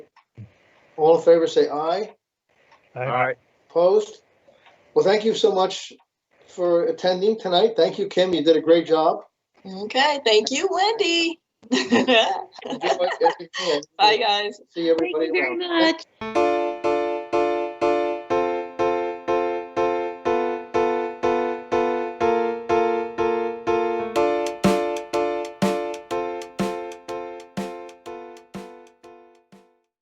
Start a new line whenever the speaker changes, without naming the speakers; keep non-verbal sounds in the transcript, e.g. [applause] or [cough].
All in favor, say aye.
All
All right.
Opposed? Well, thank you so much for attending tonight. Thank you, Kim. You did a great job.
[laughs] Okay, thank you, Wendy. [laughs]
Enjoy every-
Bye, guys.
See everybody
Thank you very
around.
much.